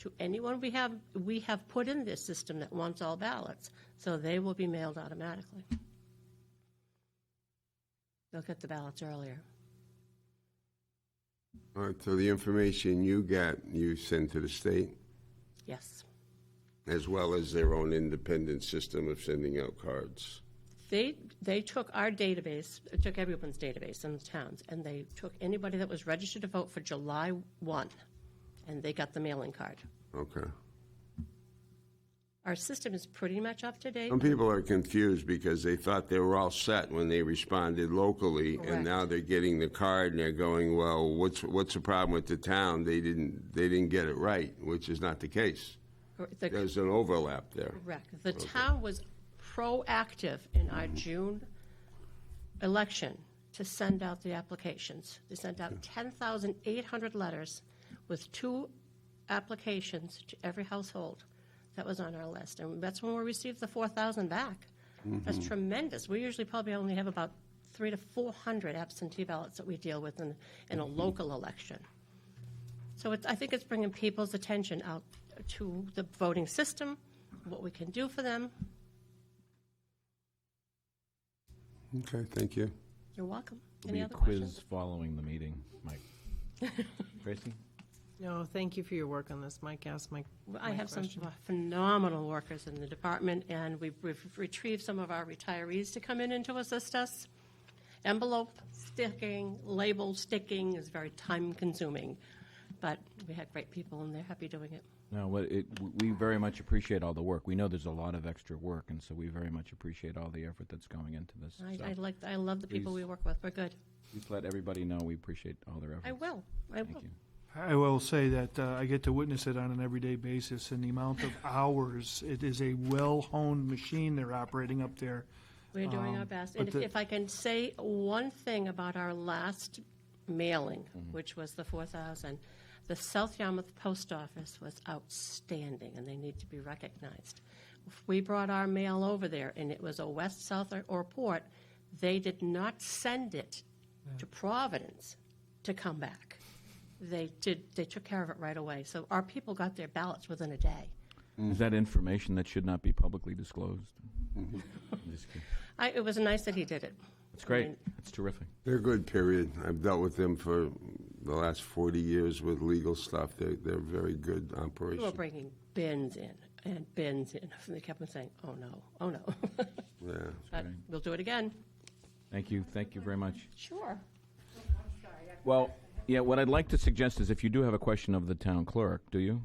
to anyone we have, we have put in this system that wants all ballots. So they will be mailed automatically. They'll get the ballots earlier. All right, so the information you got, you send to the state, Yes. as well as their own independent system of sending out cards. They, they took our database, took everyone's database in the towns, and they took anybody that was registered to vote for July 1, and they got the mailing card. Okay. Our system is pretty much up to date. Some people are confused because they thought they were all set when they responded locally, Correct. and now they're getting the card and they're going, "Well, what's what's the problem with the town? They didn't they didn't get it right," which is not the case. The- There's an overlap there. Correct. The town was proactive in our June election to send out the applications. They sent out 10,800 letters with two applications to every household that was on our list. And that's when we received the 4,000 back. That's tremendous. We usually probably only have about three to 400 absentee ballots that we deal with in, in a local election. So it's, I think it's bringing people's attention out to the voting system, what we can do for them. Okay, thank you. You're welcome. There'll Any be a other questions? quiz following the meeting, Mike. Tracy? No, thank you for your work on this, Mike. Ask Mike. I my have some question. phenomenal workers in the department, and we've we've retrieved some of our retirees to come in and to assist us. Envelope sticking, label sticking is very time-consuming, but we had great people, and they're happy doing it. No, what it, we very much appreciate all the work. We know there's a lot of extra work, and so we very much appreciate all the effort that's going into this. So I I like, I love the people we Please. work with. We're good. Please let everybody know we appreciate all their effort. I will, I will. Thank you. I will say that uh, I get to witness it on an everyday basis, and the amount of hours it is a well-honed machine they're operating up there. We're doing our best. Um, but And if- the- if I can say one thing about our last mailing, Mm-hmm. which was the 4,000, the South Yarmouth Post Office was outstanding, and they need to be recognized. If We brought our mail over there, and it was a west, south, or- or port. They did not send it to Providence to come back. They did, they took care of it right away. So our people got their ballots within a day. Is that information that should not be publicly disclosed? Just kidding. I, it was nice that he did it. It's great. It's terrific. They're good. Period. I've dealt with them for the last 40 years with legal stuff. They're they're very good We were operation. bringing bins in and bins in, and they kept on saying, "Oh no, oh no." Yeah. But we'll do it again. Thank you. Thank you very much. Sure. Well, yeah, what I'd like to suggest is if you do have a question of the town clerk, do you?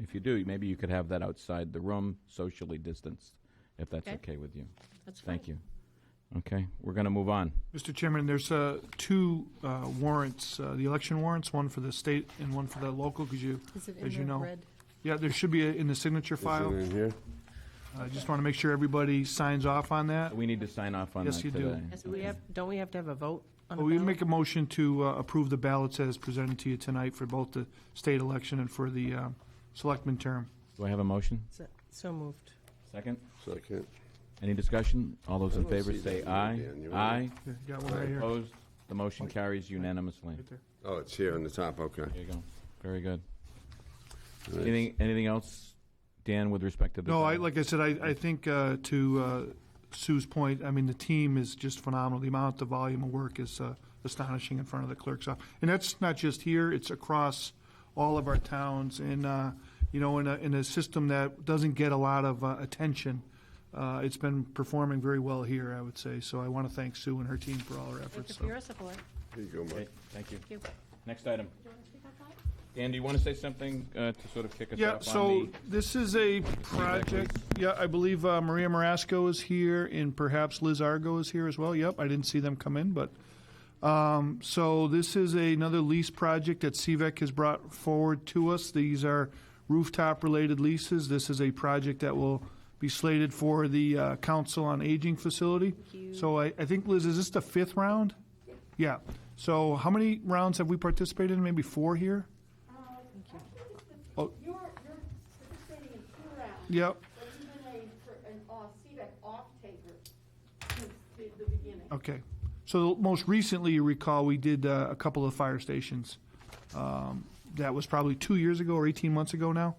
If you do, maybe you could have that outside the room, socially distanced, if that's Okay. okay with you. That's fine. Thank you. Okay, we're going to move on. Mr. Chairman, there's uh, two uh, warrants, uh, the election warrants, one for the state and one for the local, because you, Is it as in you the know. red? Yeah, there should be a- in the signature Is file. it in here? I just want to make sure everybody signs off on that. We need to sign off on that Yes, today. you do. Yes, we have, don't we have to have a vote on Well, a We ballot? make a motion to uh, approve the ballots as presented to you tonight for both the state election and for the uh, selectman term. Do I have a motion? So- So moved. Second? Second. Any discussion? All those in I don't favor see say that aye. one, Dan. You're Aye. right. Here, Got one right here. Opposed? The motion carries unanimously. Right there. Oh, it's here on the top. Okay. There you go. Very good. Anything, anything else, Dan, with respect to the? No, I, town? like I said, I, I think uh, to uh, Sue's point, I mean, the team is just phenomenal. The amount, the volume of work is uh, astonishing in front of the clerk's office. And that's not just here, it's across all of our towns. And, uh, you know, in a, in a system that doesn't get a lot of uh, attention, uh, it's been performing very well here, I would say. So I want to thank Sue and her team for all her Thank you efforts. for So. your support. Here you go, Mike. Okay, Thank you. Thank you. Next item. Do you want to speak up, Bob? Dan, do you want to say something uh, to sort of kick us Yeah, off on so the? this is a project, yeah, I believe uh, Maria Marasco is here, and perhaps Liz Argo is here as well. Yep, I didn't see them come in, but, um, so this is another lease project that CVEC has brought forward to us. These are rooftop-related leases. This is a project that will be slated for the uh, Council on Aging facility. So I, I think, Liz, is this the fifth round? Yeah. So how many rounds have we participated in? Maybe four here? You're, you're participating in two rounds, Yep. but you've been a, for an uh, off, CBEC E off-taker since the, the beginning. Okay. So most recently, you recall, we did uh, a couple of fire stations. Um, That was probably two years ago or 18 months ago now.